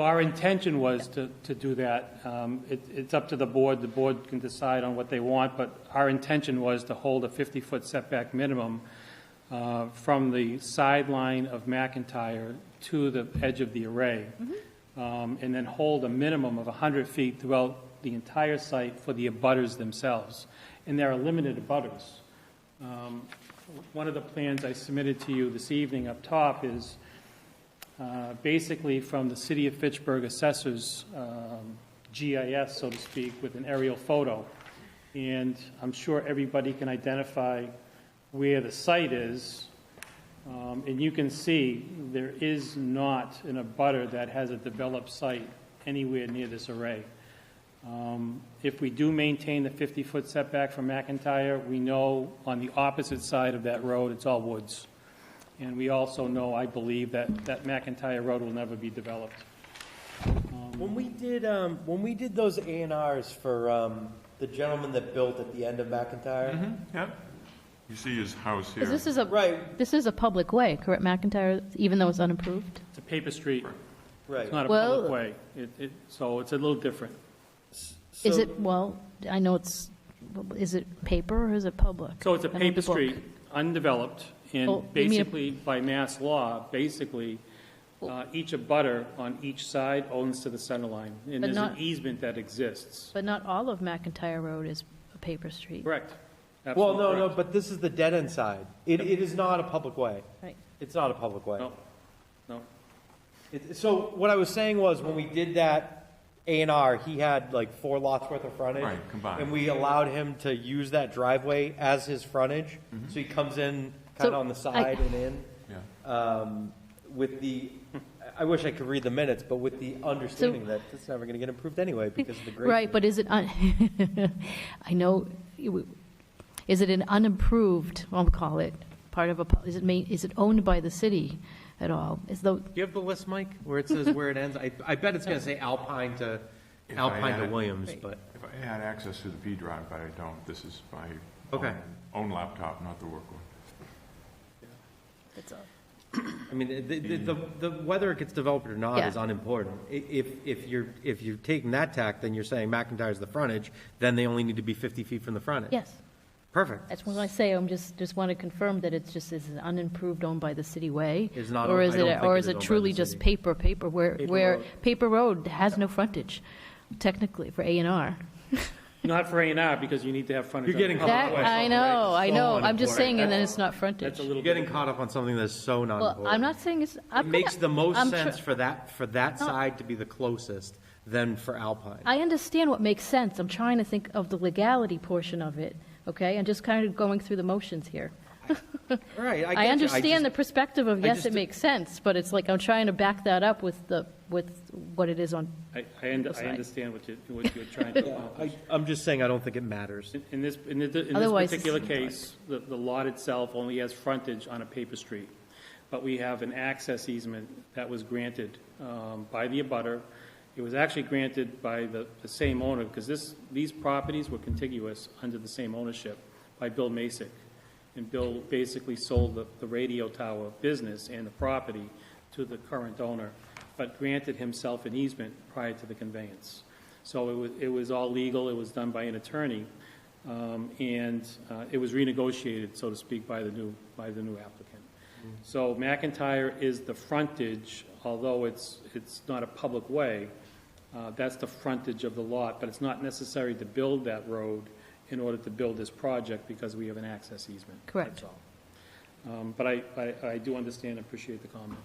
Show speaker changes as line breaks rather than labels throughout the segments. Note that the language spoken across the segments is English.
Our intention was to, to do that. Um, it- It's up to the board, the board can decide on what they want, but our intention was to hold a 50-foot setback minimum uh, from the sideline of McIntyre to the edge of the array, Um, and then hold a minimum of 100 feet throughout the entire site for the abutters themselves. And there are limited abutters. Um, One of the plans I submitted to you this evening up top is uh, basically from the City of Fitchburg Assessor's um, GIS, so to speak, with an aerial photo. And I'm sure everybody can identify where the site is. Um, And you can see, there is not an abutter that has a developed site anywhere near this array. Um, If we do maintain the 50-foot setback from McIntyre, we know on the opposite side of that road, it's all woods. And we also know, I believe, that, that McIntyre Road will never be developed.
When we did, um, when we did those A and Rs for, um, the gentleman that built at the end of
Mm-hmm.
McIntyre,
Yep. You see his house here.
Because this is a,
right,
this is a public way, correct, McIntyre, even though it's unapproved?
It's a paper street,
right.
it's not a
Well-
public way, it, it, so it's a little different.
Is
So-
it, well, I know it's, is it paper or is it public?
So it's a
I know
paper
the book.
street, undeveloped,
Oh,
and
you mean a-
basically, by mass law, basically, uh, each abutter on each side owns to the center line, and
But
there's an
not-
easement that exists.
But not all of McIntyre Road is a paper street.
Correct?
Well,
Absolutely
no, no,
correct.
but this is the dead end side. It, it is not a public way.
Right.
It's not a public way.
No, no.
It- So what I was saying was, when we did that A and R, he had like four lots worth of frontage.
Right, combined.
And we allowed him to use that driveway as his frontage,
Mm-hmm.
so he comes in kind of
So
on the
I-
side and in.
Yeah.
um, with the, I wish I could read the minutes, but with the understanding that it's never going to get improved anyway because of the grade.
Right, but is it, un- I know, you- is it an unapproved, I'll call it, part of a, pu- is it ma, is it owned by the city at all? Is though,
Do you have the list, Mike, where it says where it ends? I, I bet it's going to say Alpine to,
If I
Alpine
had
to
it.
Williams, but,
If I had access to the P drive, but I don't, this is my
Okay.
own own laptop, not the work one.
it's a-
I mean, the, the- the, the, whether it gets developed or not
Yeah.
is unimportant. I- If, if you're, if you're taking that tack, then you're saying McIntyre's the frontage, then they only need to be 50 feet from the frontage.
yes,
Perfect.
that's what I say, I'm just, just want to confirm that it's just, is it unimproved owned by the city way?
It's not
Or
owned-
is
I don't
it,
think
or
it
is
is
it
owned by
truly
the
just
city.
paper, paper, where,
Paper
where,
road.
paper road has no frontage technically for A and R?
Not for A and R, because you need to have frontage.
You're
on the
getting
public
That,
way.
I know, I
So
know, I'm
unimportant.
just saying, and then it's not frontage.
That's a
You're
little
getting
bit,
caught up on something that's so
Well,
non-important.
I'm not saying it's, I'm
It
gonna-
makes the most
I'm tr-
sense for that, for that
No.
side to be the closest than for Alpine.
I understand what makes sense. I'm trying to think of the legality portion of it, okay? I'm just kind of going through the motions here.
Right, I
I understand the
the.
perspective of,
I
yes,
just
it
di-
makes sense, but it's like, I'm trying to back that up with the, with what it is on,
I, I und- I
Aside.
understand what you, what you're trying to accomplish.
I'm just saying I don't think it matters.
In- In this, in the- in this
Otherwise, it
particular
seems like-
case, the the lot itself only has frontage on a paper street, but we have an access easement that was granted um, by the abutter. It was actually granted by the the same owner, because this, these properties were contiguous under the same ownership by Bill Masick. And Bill basically sold the the radio tower business and the property to the current owner, but granted himself an easement prior to the conveyance. So it was, it was all legal, it was done by an attorney, um, and uh, it was renegotiated, so to speak, by the new, by the new applicant. So McIntyre is the frontage, although it's, it's not a public way, uh, that's the frontage of the lot, but it's not necessary to build that road in order to build this project because we have an access easement.
Correct.
That's all. Um, But I, I, I do understand and appreciate the comment.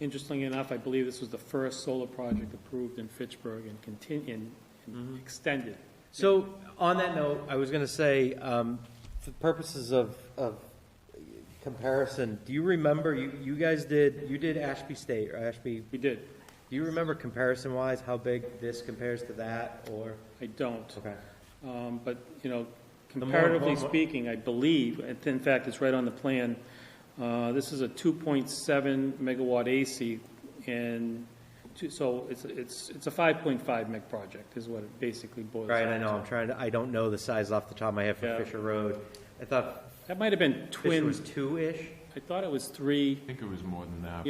Interestingly enough, I believe this was the first solar project approved in Fitchburg and continued, and extended.
So, on that note, I was gonna say, um, for purposes of, of comparison, do you remember, you, you guys did, you did Ashby State, or Ashby,
We did.
do you remember comparison-wise, how big this compares to that, or?
I don't.
Okay.
Um, But, you know,
more-
comparatively
more-
speaking, I believe, and in fact, it's right on the plan, uh, this is a 2.7 megawatt AC, and, two- so it's, it's, it's a 5.5 meg project, is what it basically boils down
Right,
to.
I know, I'm trying to, I don't know the size off the top of my head for
Yeah.
Fisher Road. I thought
That might have been
Fisher was
twin,
two-ish.
I thought it was three.
I think it was more than that.